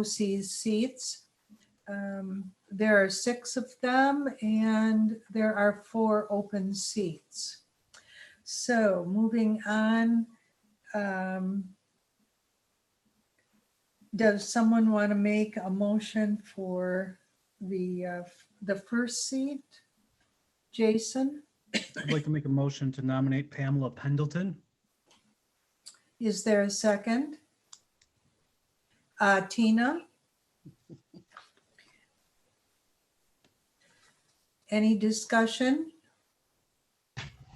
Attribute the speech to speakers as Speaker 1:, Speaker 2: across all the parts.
Speaker 1: BOCES seats. Um, There are six of them and there are four open seats. So moving on. um, Does someone want to make a motion for the, uh, the first seat? Jason,
Speaker 2: I'd like to make a motion to nominate Pamela Pendleton.
Speaker 1: is there a second? Uh, Tina? Any discussion?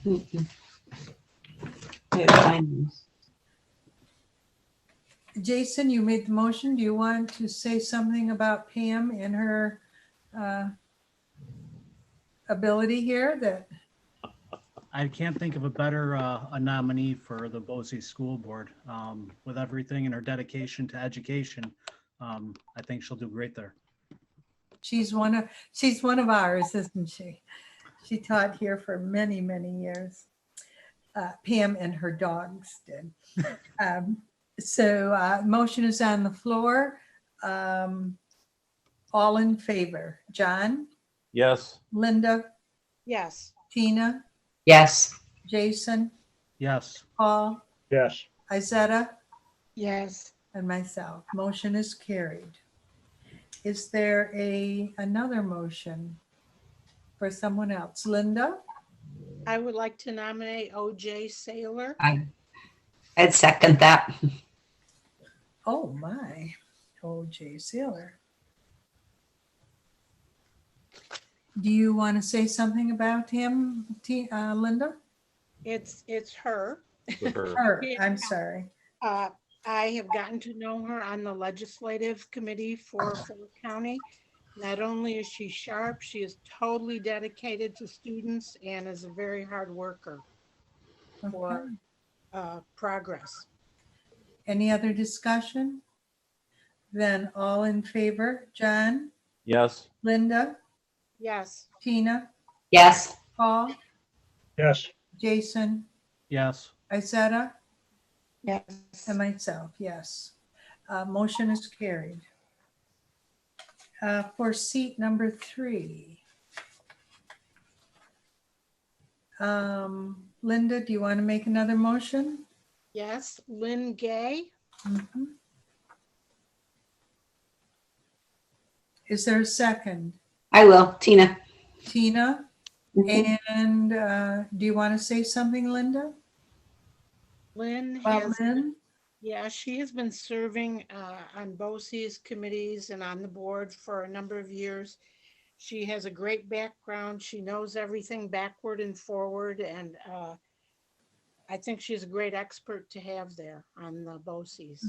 Speaker 3: Mm-mm. Wait, mine is-
Speaker 1: Jason, you made the motion. Do you want to say something about Pam and her uh, ability here that,
Speaker 2: I can't think of a better uh, a nominee for the Boise School Board. Um, With everything and her dedication to education, um, I think she'll do great there.
Speaker 1: she's one of, she's one of ours, isn't she? She taught here for many, many years. Uh, Pam and her dogs did. Um, So uh, motion is on the floor. Um, All in favor? John,
Speaker 4: Yes,
Speaker 1: Linda,
Speaker 5: Yes,
Speaker 1: Tina,
Speaker 3: Yes,
Speaker 1: Jason,
Speaker 2: Yes,
Speaker 1: Paul,
Speaker 6: yes,
Speaker 1: Izetta?
Speaker 5: yes,
Speaker 1: And myself, motion is carried. Is there a, another motion for someone else? Linda,
Speaker 5: I would like to nominate OJ Saylor.
Speaker 3: I, I'd second that.
Speaker 1: oh my, Oh, OJ Sailor. Do you want to say something about him, T- uh, Linda?
Speaker 5: It's, it's her.
Speaker 4: with her.
Speaker 1: Her, I'm sorry.
Speaker 5: Uh, I have gotten to know her on the legislative committee for Fayette County. Not only is she sharp, she is totally dedicated to students and is a very hard worker
Speaker 1: Okay.
Speaker 5: for uh, progress.
Speaker 1: Any other discussion? Then all in favor, John,
Speaker 4: Yes,
Speaker 1: Linda,
Speaker 5: Yes,
Speaker 1: Tina,
Speaker 3: Yes,
Speaker 1: Paul,
Speaker 6: yes,
Speaker 1: Jason,
Speaker 2: yes,
Speaker 1: Izetta?
Speaker 5: yes,
Speaker 1: And myself, yes. Uh, Motion is carried. Uh, For seat number three. Um, Linda, do you want to make another motion?
Speaker 5: yes. Lynn Gay,
Speaker 1: Mhm. Is there a second?
Speaker 3: I will. Tina?
Speaker 1: Tina? And uh, do you want to say something, Linda?
Speaker 5: Lynn
Speaker 1: About
Speaker 5: has.
Speaker 1: Lynn?
Speaker 5: Yeah, she has been serving uh, on BOCES committees and on the board for a number of years. She has a great background. She knows everything backward and forward, and uh, I think she's a great expert to have there on the BOCES.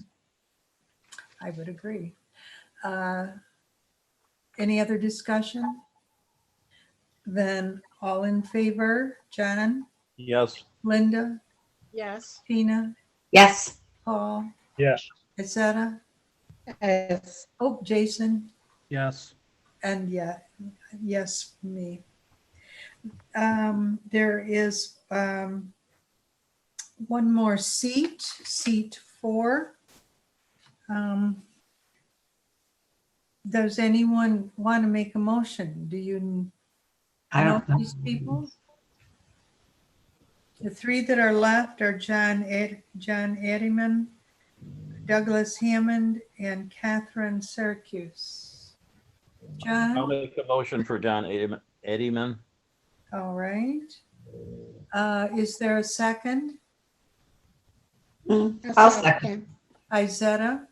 Speaker 1: I would agree. Uh, Any other discussion? Then all in favor, John,
Speaker 4: yes,
Speaker 1: Linda,
Speaker 5: Yes.
Speaker 1: Tina,
Speaker 3: Yes,
Speaker 1: Paul,
Speaker 6: yes,
Speaker 1: etc.
Speaker 5: Yes.
Speaker 1: Oh, Jason,
Speaker 2: yes,
Speaker 1: and yeah, yes, me. Um, There is um, one more seat, seat four. Um, Does anyone want to make a motion? Do you
Speaker 3: I
Speaker 1: know
Speaker 3: don't know.
Speaker 1: these people? The three that are left are John Ed, John Eddieman, Douglas Hammond, and Catherine Syracuse.
Speaker 4: I'll
Speaker 1: John,
Speaker 4: make a motion for John Eddieman- Eddieman.
Speaker 1: all right. Uh, Is there a second?
Speaker 3: Mm, I'll second.
Speaker 1: Izetta?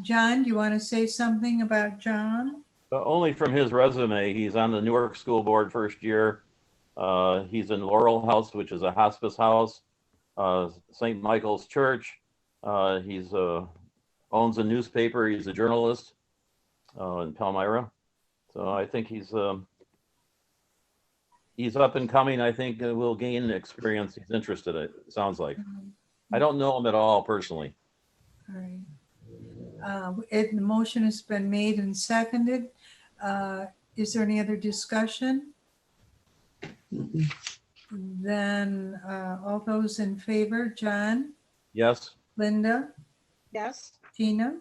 Speaker 1: John, do you want to say something about John?
Speaker 4: But only from his resume, he's on the Newark School Board first year. Uh, he's in Laurel House, which is a hospice house, uh, St. Michael's Church. Uh, he's, uh, owns a newspaper. He's a journalist, uh, in Palmyra. So I think he's, um, he's up and coming. I think uh, will gain experience. He's interested, it sounds like. I don't know him at all personally.
Speaker 1: All right. Uh, It, the motion has been made and seconded. Uh, Is there any other discussion?
Speaker 3: Mm-mm.
Speaker 1: Then uh, all those in favor, John,
Speaker 4: Yes,
Speaker 1: Linda,
Speaker 5: Yes,
Speaker 1: Tina,